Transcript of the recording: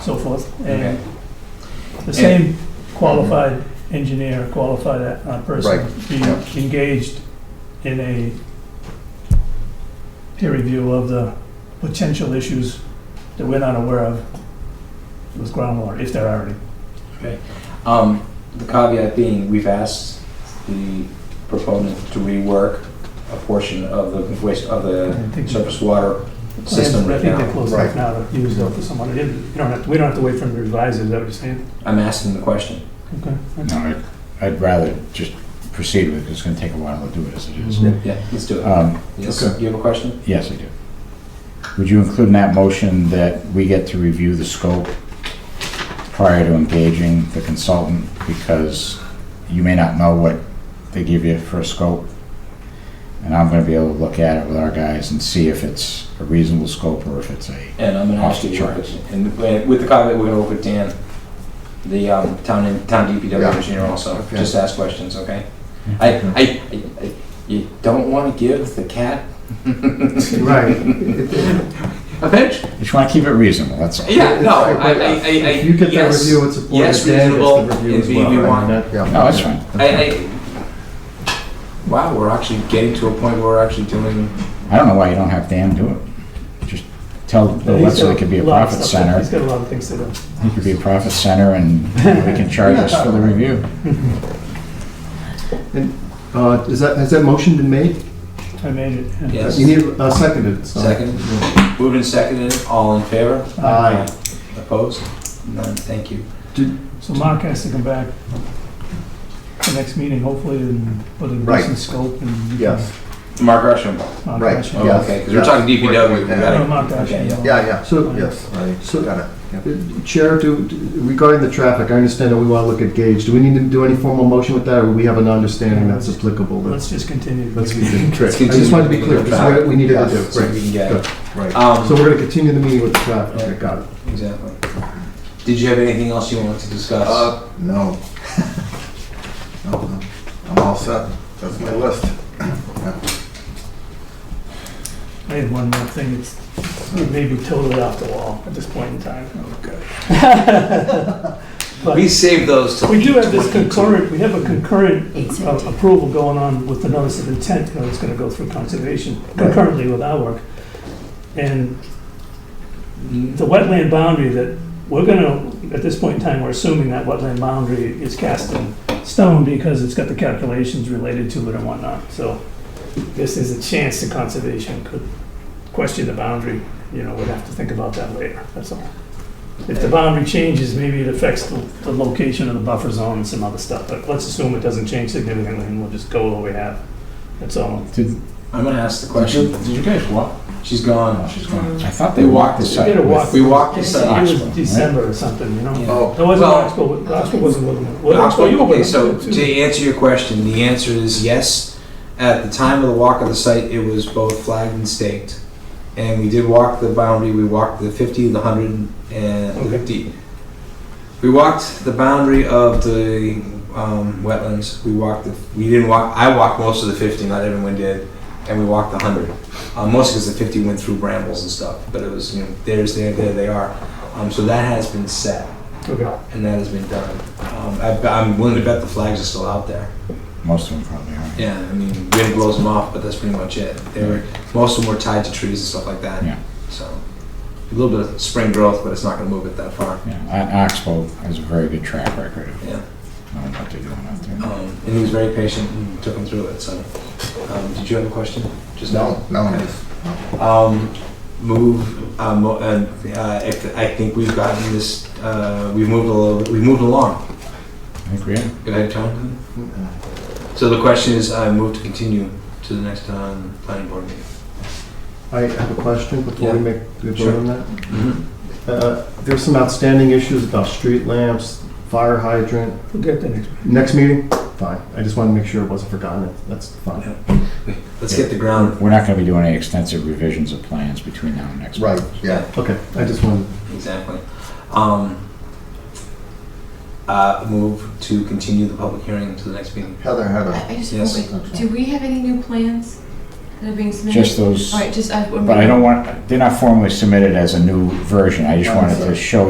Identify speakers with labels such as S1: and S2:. S1: so forth.
S2: Okay.
S1: And the same qualified engineer, qualified uh, person be
S2: yeah.
S1: engaged in a peer review of the potential issues that we're not aware of with groundwater, if there are any.
S2: Um, the caveat being, we've asked the proponent to rework a portion of the waste, of
S1: I
S2: the
S1: think the
S2: surface water
S1: plans-
S2: system
S1: I
S2: right
S1: think they're
S2: now.
S1: closed off now to use though for someone. You don't have, to- we don't have to wait for them to revise it, is that what you're saying?
S2: I'm asking the question.
S1: Okay.
S3: No, I'd- I'd rather just proceed with it, it's gonna take a while to do it as it is.
S2: Yeah, let's do it.
S3: Um,
S2: Yes,
S4: Okay.
S2: you have a question?
S3: Yes, I do. Would you include in that motion that we get to review the scope prior to engaging the consultant? Because you may not know what they give you for a scope. And I'm gonna be able to look at it with our guys and see if it's a reasonable scope or if it's a,
S2: And I'm gonna ask you,
S3: Off the
S2: your
S3: charts.
S2: question. and and with the caveat, we're gonna work with Dan, the, um, town, en- town DPW
S4: Yeah.
S2: engineer also,
S4: Okay.
S2: just ask questions, okay? I, I, I- I, you don't wanna give the cat
S4: Right. It- it-
S2: a bench?
S3: just wanna keep it reasonable, that's all.
S2: Yeah, no, I, I, I, I-
S4: uh, If you get the
S2: yes.
S4: review and support
S2: yes,
S4: it, Dan
S2: reasonable,
S4: gets the review
S2: and
S4: as
S2: we-
S4: well.
S2: we
S4: I mean,
S2: want-
S4: that- yeah.
S2: Oh,
S3: No, that's fine.
S2: I, I, wow, we're actually getting to a point where we're actually doing,
S3: I don't know why you don't have Dan do it. Just tell Leslie it could be a
S1: He's got lot of
S3: profit
S1: stuff that-
S3: center.
S1: He's got a lot of things to do.
S3: It could be a profit center and we can charge us for the review.
S4: Uh, is that, has that motion been made?
S1: I made it. yeah.
S2: Yes.
S4: You need, uh, seconded, so.
S2: Second. moved and seconded, all in favor?
S1: Uh,
S4: Aye.
S2: Opposed? None, thank you.
S1: So Mark has to come back the next meeting, hopefully, and put a
S4: Right.
S1: decent scope and.
S4: Yes,
S2: Mark Gresham,
S1: Mark
S4: right,
S1: Ashen.
S2: oh,
S4: Yes.
S2: okay, because we're talking DPW, we
S1: No,
S2: got
S1: Mark Ashen.
S2: Okay, yeah.
S4: yeah, yeah, so,
S1: Fine.
S4: yes,
S5: I got it.
S4: Uh, Chair, do, regarding the traffic, I understand that we want to look at gauge, do we need to do any formal motion with that, or we have an understanding that's applicable? That's-
S1: Let's just continue.
S4: Let's continue.
S2: Let's
S4: I just wanted to be clear,
S2: continue.
S4: this is what we needed to do.
S2: it, so we
S4: Right.
S2: can get it.
S5: Right.
S4: So
S2: Um,
S4: we're going to continue the meeting with the traffic, okay, got it.
S2: exactly. Did you have anything else you wanted to discuss?
S5: Uh, no. No, no. I'm all set. That's my list.
S1: I had one more thing, it's, it may be totally off the wall at this point in time. But
S2: We saved those till.
S1: we do have this
S2: 8:22.
S1: concurrent, we have a concurrent
S6: Eight
S1: uh,
S6: seventeen.
S1: approval going on with the notice of intent, you know, it's gonna go through conservation concurrently with our work. And
S2: Hmm?
S1: the wetland boundary that we're gonna, at this point in time, we're assuming that wetland boundary is cast in stone because it's got the calculations related to it and whatnot, so this is a chance the conservation could question the boundary, you know, we'd have to think about that later, that's all. If the boundary changes, maybe it affects the, the location of the buffer zone and some other stuff, but let's assume it doesn't change significantly and we'll just go what we have, that's all.
S3: Did,
S2: I'm gonna ask the
S3: did you-
S2: question.
S3: did you guys walk?
S2: She's gone.
S3: Oh, she's gone. I thought they walked the
S2: We
S3: site.
S1: did a
S3: with-
S1: walk.
S2: We walked the
S1: It
S2: site.
S1: was
S3: Oxbow, right?
S1: December or something, you know?
S2: Yeah.
S5: Oh,
S1: That wasn't
S2: Well-
S1: Oxbow, Oxbow wasn't with them. Well, Oxbow, you were
S2: Okay,
S1: with
S2: so
S1: them.
S2: to answer your question, the answer is yes. At the time of the walk of the site, it was both flagged and staked. And we did walk the boundary, we walked the 50, the 100, and the
S1: Okay.
S2: 50. We walked the boundary of the um, wetlands, we walked the, we didn't walk, I walked most of the 50, not everyone did, and we walked the 100. Uh, Mostly because the 50 went through brambles and stuff, but it was, you know, there's, there, there they are. Um, So that has been set
S1: Okay.
S2: and that has been done. Um, I, I'm willing to bet the flags are still out there.
S3: Most of them probably are.
S2: Yeah, I mean, wind blows them off, but that's pretty much it. They were most of them were tied to trees and stuff like that.
S3: Yeah.
S2: So a little bit of spring growth, but it's not going to move it that far.
S3: Yeah, O- Oxbow has a very good track record of
S2: Yeah.
S3: knowing what they're doing out there.
S2: Um, and he was very patient and took them through it. So, um, did you have a question? Just
S5: no, no,
S2: Okay.
S5: just-
S2: Um, move. Uh, mo- and uh, if, I think we've gotten this. Uh, we've moved a little. We've moved along.
S3: I think we are.
S2: Go ahead, Tom.
S4: Mm-hmm.
S2: So the question is, I move to continue to the next um, planning board meeting.
S4: I have a question before we
S2: Yeah.
S4: make, the
S2: Sure.
S4: vote on that.
S2: Mm-hmm.
S4: Uh, There's some outstanding issues about street lamps, fire hydrant.
S1: We'll get the next.
S4: Next meeting? Fine. I just wanted to make sure it wasn't forgotten. That's fine.
S2: Let's get the ground.
S3: We're not gonna be doing any extensive revisions of plans between now and next. month.
S5: Right, yeah.
S4: Okay, I just wanted,
S2: Exactly. Um, uh, move to continue the public hearing to the next meeting.
S5: Heather, Heather.
S6: I I just,
S2: Yes.
S6: real quick, do we have any new plans that are being submitted?
S3: Just those,
S6: All right, just, uh, I.
S3: but I don't want, they're not formally submitted as a new version. I just wanted to show